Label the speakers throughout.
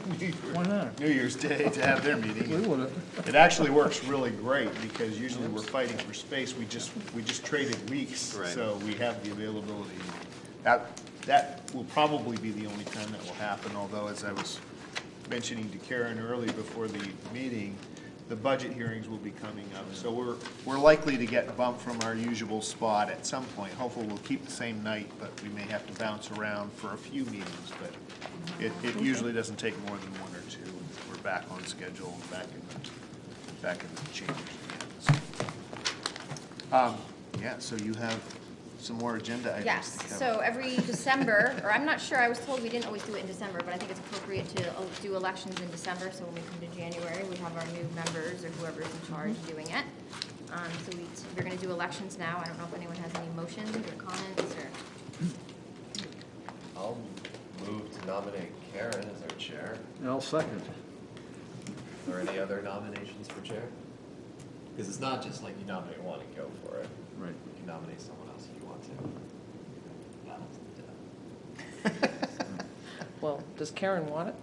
Speaker 1: Why not?
Speaker 2: New Year's Day to have their
Speaker 1: We
Speaker 2: meeting.
Speaker 1: would have.
Speaker 2: It actually works really great because usually we're fighting for space. We just, we just traded weeks,
Speaker 3: Right.
Speaker 2: so we have the availability. That, that will probably be the only time that will happen, although as I was mentioning to Karen early before the meeting, the budget hearings will be coming up. So we're, we're likely to get bumped from our usual spot at some point. Hopefully, we'll keep the same night, but we may have to bounce around for a few meetings, but it, it usually doesn't take more than one or two. We're back on schedule, back in the, back in the chambers again. so. Um, Yeah, so you have some more agenda items to
Speaker 4: Yes,
Speaker 2: cover.
Speaker 4: so every December, or I'm not sure, I was told we didn't always do it in December, but I think it's appropriate to uh, do elections in December, so when we come to January, we have our new members or whoever's in charge
Speaker 5: Mm-hmm.
Speaker 4: doing it. Um, so we, we're gonna do elections now, I don't know if anyone has any motions or comments or,
Speaker 3: I'll move to nominate Karen as our chair.
Speaker 1: I'll second.
Speaker 3: Or any other nominations for chair? Because it's not just like you nominate one and go for it.
Speaker 1: Right.
Speaker 3: You can nominate someone else if you want to.
Speaker 5: Well, does Karen want it?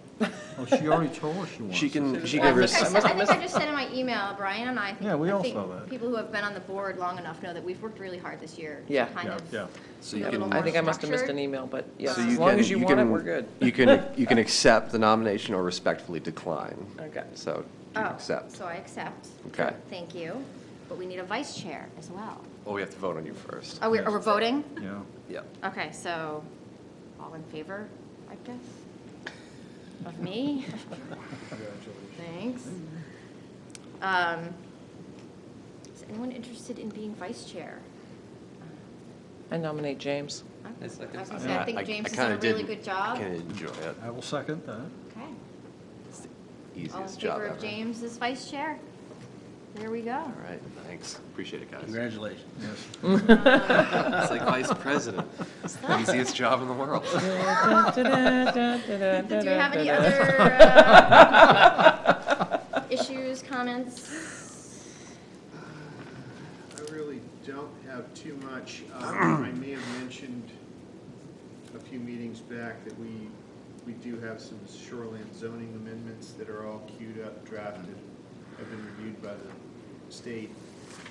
Speaker 1: Oh, she already told us she wants.
Speaker 6: She
Speaker 1: it.
Speaker 6: can, she
Speaker 4: Well,
Speaker 6: gave
Speaker 4: I
Speaker 6: her,
Speaker 4: think I
Speaker 6: s-
Speaker 4: said- I think I just said in my email, Brian and I, I think-
Speaker 1: Yeah, we
Speaker 4: I
Speaker 1: all
Speaker 4: think
Speaker 1: saw that.
Speaker 4: people who have been on the board long enough know that we've worked really hard this year. to
Speaker 5: Yeah.
Speaker 4: Kind of.
Speaker 1: Yeah,
Speaker 6: so you
Speaker 4: a little
Speaker 6: can.
Speaker 5: I think I must have missed
Speaker 4: Structured.
Speaker 5: an e- email, but yes,
Speaker 6: so
Speaker 5: as
Speaker 6: you
Speaker 5: long
Speaker 6: can-
Speaker 5: as you want it,
Speaker 6: can-
Speaker 5: we're good.
Speaker 6: You can, you can accept the nomination or respectfully decline.
Speaker 5: Okay.
Speaker 6: So you
Speaker 4: Oh,
Speaker 6: accept.
Speaker 4: So I accept.
Speaker 6: Okay.
Speaker 4: Thank you, but we need a vice chair as well.
Speaker 6: Well, we have to vote on you first.
Speaker 4: Are we, are we voting?
Speaker 1: yeah.
Speaker 6: Yeah.
Speaker 4: Okay, so, all in favor, I guess, of me? Thanks. Um, Is anyone interested in being vice chair?
Speaker 5: I nominate James.
Speaker 4: I
Speaker 3: I second.
Speaker 4: was gonna say, I think James has done a
Speaker 6: kinda
Speaker 4: really
Speaker 6: didn't-
Speaker 4: good job.
Speaker 6: I kind of enjoy it.
Speaker 1: I will second that.
Speaker 4: Okay.
Speaker 6: It's the
Speaker 4: All in
Speaker 6: easiest job
Speaker 4: favor
Speaker 6: ever.
Speaker 4: of James as vice chair? There we go.
Speaker 6: All right, thanks. Appreciate it, guys.
Speaker 7: Congratulations.
Speaker 1: Yes.
Speaker 6: It's like vice president. It's the easiest job in the world.
Speaker 4: Do we
Speaker 5: we
Speaker 4: have any other uh, issues, comments?
Speaker 2: I really don't have too much. Um, I may have mentioned a few meetings back that we, we do have some shoreland zoning amendments that are all queued up, drafted, have been reviewed by the state,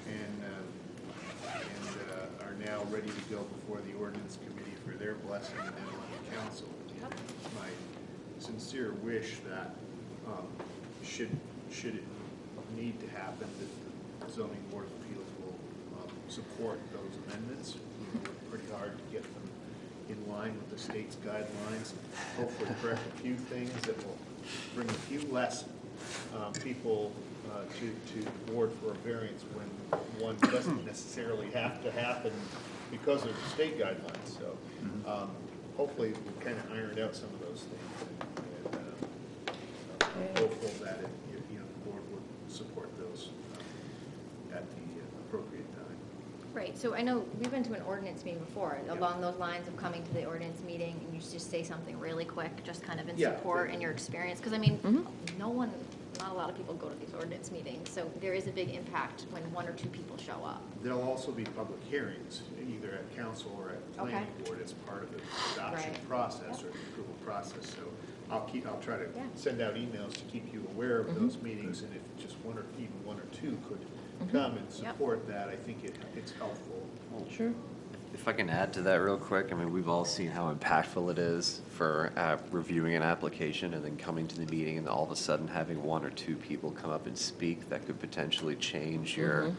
Speaker 2: and, uh, and uh, are now ready to go before the ordinance committee for their blessing and then on the council. And My sincere wish that, um, should, should it need to happen, that the zoning board of appeals will um, support those amendments. We worked pretty hard to get them in line with the state's guidelines, and hopefully correct a few things that will bring a few less uh, people uh, to, to the board for a variance when one doesn't necessarily have to happen because of the state guidelines. So um, hopefully we kind of ironed out some of those things. and- and, uh, I'm hopeful that, it- you you know, the board would support those um, at the appropriate time.
Speaker 4: Right, so I know, we've been to an ordinance meeting before, along those lines of coming to the ordinance meeting, and you just say something really quick, just kind of in
Speaker 2: Yeah.
Speaker 4: support and your experience, because I mean,
Speaker 5: Mm-hmm.
Speaker 4: no one, not a lot of people go to these ordinance meetings, so there is a big impact when one or two people show up.
Speaker 2: There'll also be public hearings, either at council or at planning
Speaker 4: Okay.
Speaker 2: board as part of the adoption
Speaker 4: Right.
Speaker 2: process or the approval process. So I'll keep, I'll try to
Speaker 4: Yeah.
Speaker 2: send out emails to keep you aware of
Speaker 8: Mm-hmm.
Speaker 2: those meetings, and if just one or, even one or two could come and support that, I think it, it's helpful.
Speaker 5: Sure.
Speaker 6: If I can add to that real quick, I mean, we've all seen how impactful it is for uh, reviewing an application and then coming to the meeting and all of a sudden having one or two people come up and speak that could potentially change your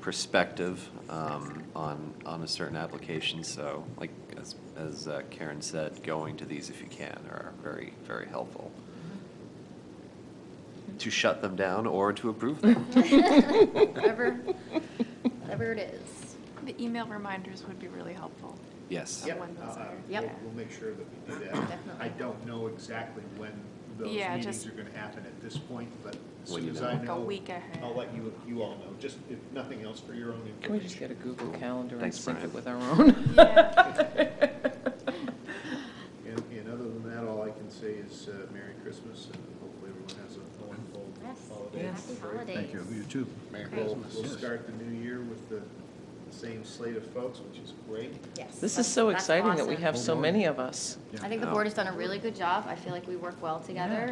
Speaker 6: perspective um, on, on a certain application. So like, as, as uh, Karen said, going to these if you can are very, very helpful. To shut them down or to approve them.
Speaker 4: Whatever, whatever it is.
Speaker 8: The email reminders would be really helpful.
Speaker 6: Yes.
Speaker 2: Yep,
Speaker 8: When those
Speaker 2: uh,
Speaker 8: are-
Speaker 4: Yep.
Speaker 2: we'll- We'll make sure that we do that. I don't know exactly when those
Speaker 8: Yeah,
Speaker 2: meetings
Speaker 8: just-
Speaker 2: are gonna happen at this point, but as
Speaker 6: When
Speaker 2: soon
Speaker 6: you
Speaker 2: as
Speaker 6: know.
Speaker 2: I
Speaker 8: Like a
Speaker 2: know.
Speaker 8: week ahead.
Speaker 2: I'll let you, you all know, just if nothing else for your own information.
Speaker 5: Can we just get a Google Calendar and
Speaker 6: Thanks,
Speaker 5: sync
Speaker 6: Brian.
Speaker 5: it with our own?
Speaker 8: Yeah.
Speaker 2: And, and other than that, all I can say is uh, Merry Christmas and hopefully everyone has a wonderful
Speaker 4: Yes,
Speaker 2: holiday.
Speaker 4: happy holidays.
Speaker 1: Thank you. You too.
Speaker 2: We'll, we'll start the new year with the the same slate of folks, which is great.
Speaker 4: Yes.
Speaker 5: This is
Speaker 4: that's-
Speaker 5: so
Speaker 4: that's
Speaker 5: exciting that we
Speaker 4: awesome.
Speaker 5: have so
Speaker 1: Oh, boy.
Speaker 5: many of us.
Speaker 4: I think the board has done a really good job. I feel like we work well together